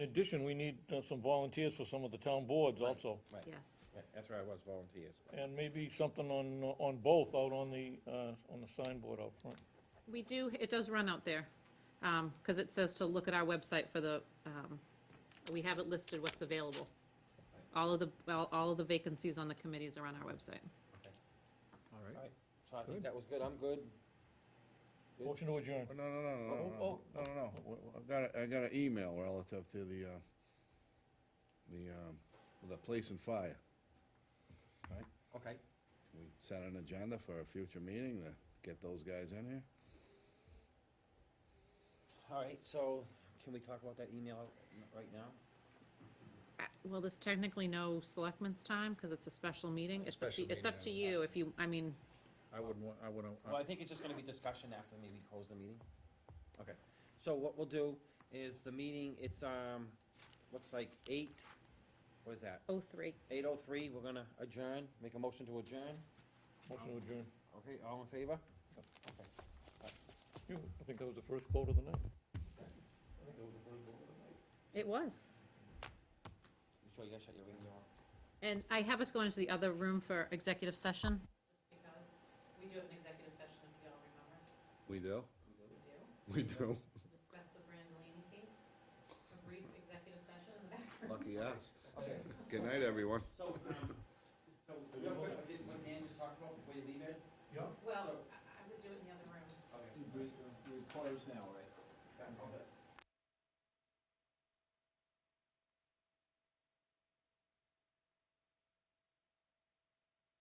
In addition, we need uh, some volunteers for some of the town boards also. Right. Yes. Right, That's where I was volunteers. And maybe something on, on both out on the, uh, on the signboard out front. We do, it does run out there, because it says to look at our website for the, um, we have it listed what's available. All of the, all all of the vacancies on the committees are on our website. All right. Alright, so I Good. think that was good, I'm good. Good. Motion to adjourn. No, no, no, no, Oh, no, no, no, no, no. W- w- I've got, a- I got an email relative to the, uh, the, um, the police and fire. Okay, We set an agenda for a future meeting to get those guys in here. alright, so can we talk about that email right now? Uh, Well, there's technically no selectmen's time, because it's a special meeting. It's It's a up to, special it's up to meeting, yeah. you if you, I mean, I wouldn't want, I wouldn't. Well, I think it's just gonna be discussion after maybe close the meeting. Okay, so what we'll do is the meeting, it's, um, looks like eight, what is that? 03. Eight oh three, we're gonna adjourn, make a motion to adjourn, Motion to adjourn. okay, all in favor? You, I think that was the first vote of the night. It was. You sure you gotta shut your email off? And I have us go into the other room for executive session. Because we do have an executive session, if you all remember. We do? We do. We do. Discuss the Brandolini case, a brief executive session in the back room. Lucky us. Okay, Good night, everyone. so, um, so, real quick, what did- what Dan just talked about before you leave it?